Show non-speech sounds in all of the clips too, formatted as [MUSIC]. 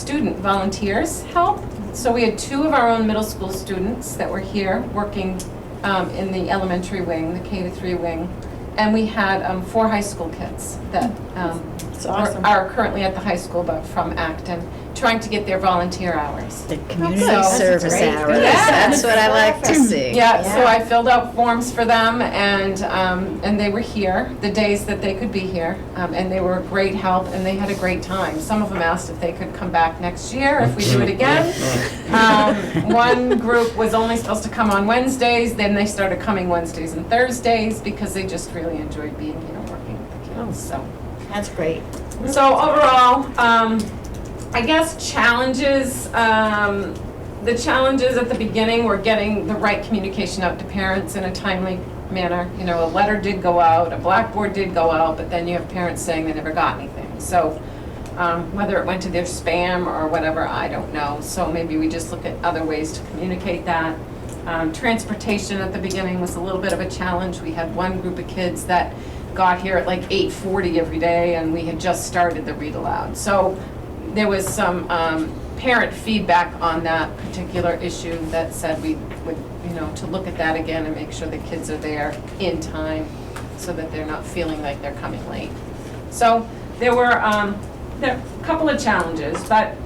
student volunteers help. So we had two of our own middle school students that were here working um, in the elementary wing, the K to three wing. And we had um, four high school kids that um, That's are- awesome. are currently at the high school but from Acton, trying to get their volunteer hours. The community So- That's service great. hours, Yeah. that's what I like to see. Yeah, so Yeah. I filled out forms for them and, um, and they were here, the days that they could be here. Um, and they were a great help and they had a great time. Some of them asked if they could come back next year, if we do it again. [LAUGHS] Um, one group was only supposed to come on Wednesdays, then they started coming Wednesdays and Thursdays because they just really enjoyed being here and working with the kids, so. That's great. So overall, um, I guess challenges, um, the challenges at the beginning were getting the right communication out to parents in a timely manner. You know, a letter did go out, a blackboard did go out, but then you have parents saying they never got anything. So, um, whether it went to their spam or whatever, I don't know. So maybe we just look at other ways to communicate that. Um, transportation at the beginning was a little bit of a challenge. We had one group of kids that got here at like 8:40 every day, and we had just started the read aloud. So there was some um, parent feedback on that particular issue that said we would, you know, to look at that again and make sure the kids are there in time so that they're not feeling like they're coming late. So there were, um, there a couple of challenges, but,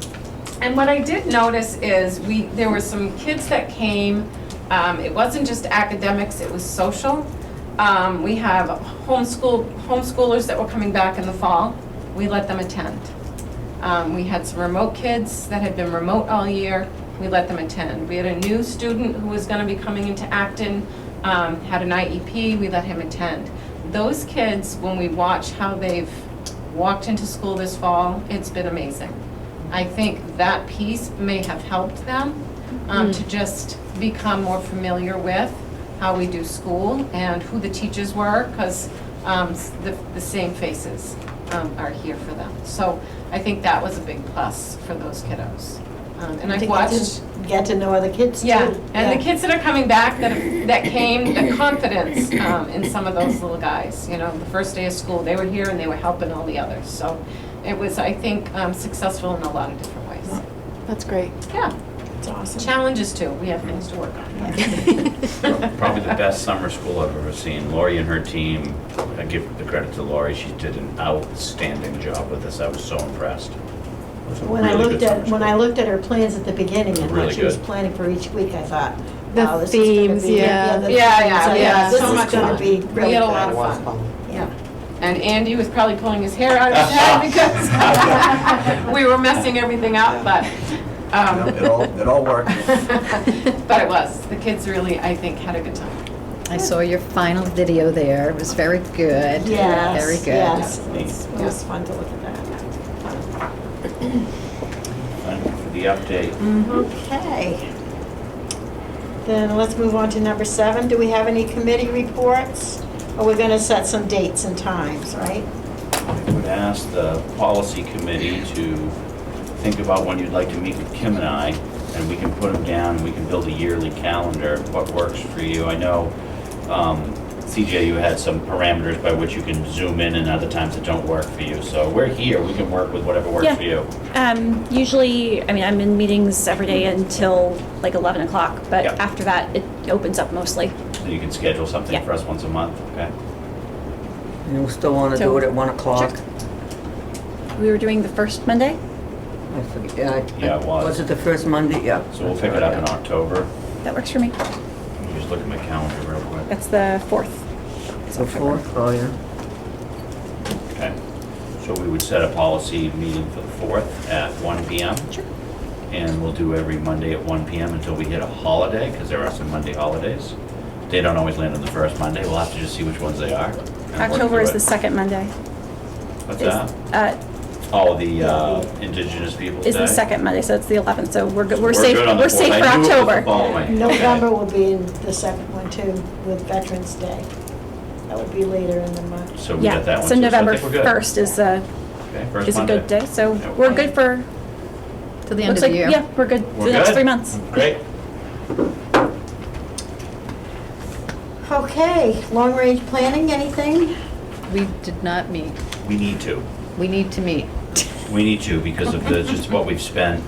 and what I did notice is we, there were some kids that came, um, it wasn't just academics, it was social. Um, we have homeschool, homeschoolers that were coming back in the fall, we let them attend. Um, we had some remote kids that had been remote all year, we let them attend. We had a new student who was gonna be coming into Acton, um, had an IEP, we let him attend. Those kids, when we watch how they've walked into school this fall, it's been amazing. I think that piece may have helped them, um, Hmm. to just become more familiar with how we do school and who the teachers were, because um, s- the, the same faces um, are here for them. So I think that was a big plus for those kiddos. Um, and I I've think they watched, just Get to know other kids too. yeah, and the kids that are coming back that, that came, the confidence um, in some of those little guys, you know, the first day of school, they were here and they were helping all the others. So it was, I think, um, successful in a lot of different ways. That's great. Yeah, It's awesome. challenges too, we have things to work on. [LAUGHS] Probably the best summer school I've ever seen. Lori and her team, I give the credit to Lori, she did an outstanding job with this. I was so impressed. It was a When I really looked good at, summer when I school. looked at her plans at the beginning and Really what she was good. planning for each week, I thought, The wow, this is gonna themes, be. yeah. Yeah, the themes, yeah, I yeah, thought, This so is much gonna fun. be We really had a good. lot of was fun. fun. Yeah, And Andy was probably pulling his hair out of his [LAUGHS] head because [LAUGHS] we were messing everything up, but, No, It um, all, it all worked. [LAUGHS] but it was. The kids really, I think, had a good time. I saw your final video there, it was very good. yes, Very good. yes. It's- It was fun to look at that. Thank you for the update. Mm-hmm. Okay. Then let's move on to number seven. Do we have any committee reports? Or we're gonna set some dates and times, right? I would ask the policy committee to think about when you'd like to meet with Kim and I, and we can put them down, and we can build a yearly calendar, what works for you. I know, um, CJ, you had some parameters by which you can zoom in and other times that don't work for you. So we're here, we can work with whatever works Yeah. for you. Um, usually, I mean, I'm in meetings every day until like 11 o'clock, but Yeah. after that, it opens up mostly. So you can schedule something Yeah. for us once a month, okay? And we still want to So- do it at 1 o'clock? We were doing the first Monday? I forget. Yeah, I- Yeah, it was. Was it the first Monday? Yeah. So we'll pick it up in October. That works for me. Let me Just look at my calendar real quick. That's the 4th. It's The October. 4th, oh, yeah. Okay. So we would set a policy meeting for the 4th at 1 PM. Sure. And we'll do every Monday at 1 PM until we hit a holiday, because there are some Monday holidays. They don't always land on the first Monday. We'll have to just see which ones they are. and work October through is it. the second Monday. What's Is- that? Uh, Oh, the uh, Indigenous Peoples' Day? is the second Monday, so it's the 11th, so we're, good- So we're safe, good on the we're fourth. safe for I knew it was the October. following. Okay. November will be in the second one too, with Veterans Day. That would be later in the month. So we got that Yeah, one. so too. I November think we're good. 1st is a, Okay, first is a Monday. good day, so Yeah, we're good for, Till the end of looks the like, year. yeah, we're good for We're the next good? three months. Great. Okay, long-range planning, anything? We did not meet, We need to. we need to meet. We need to because of the, just what we've spent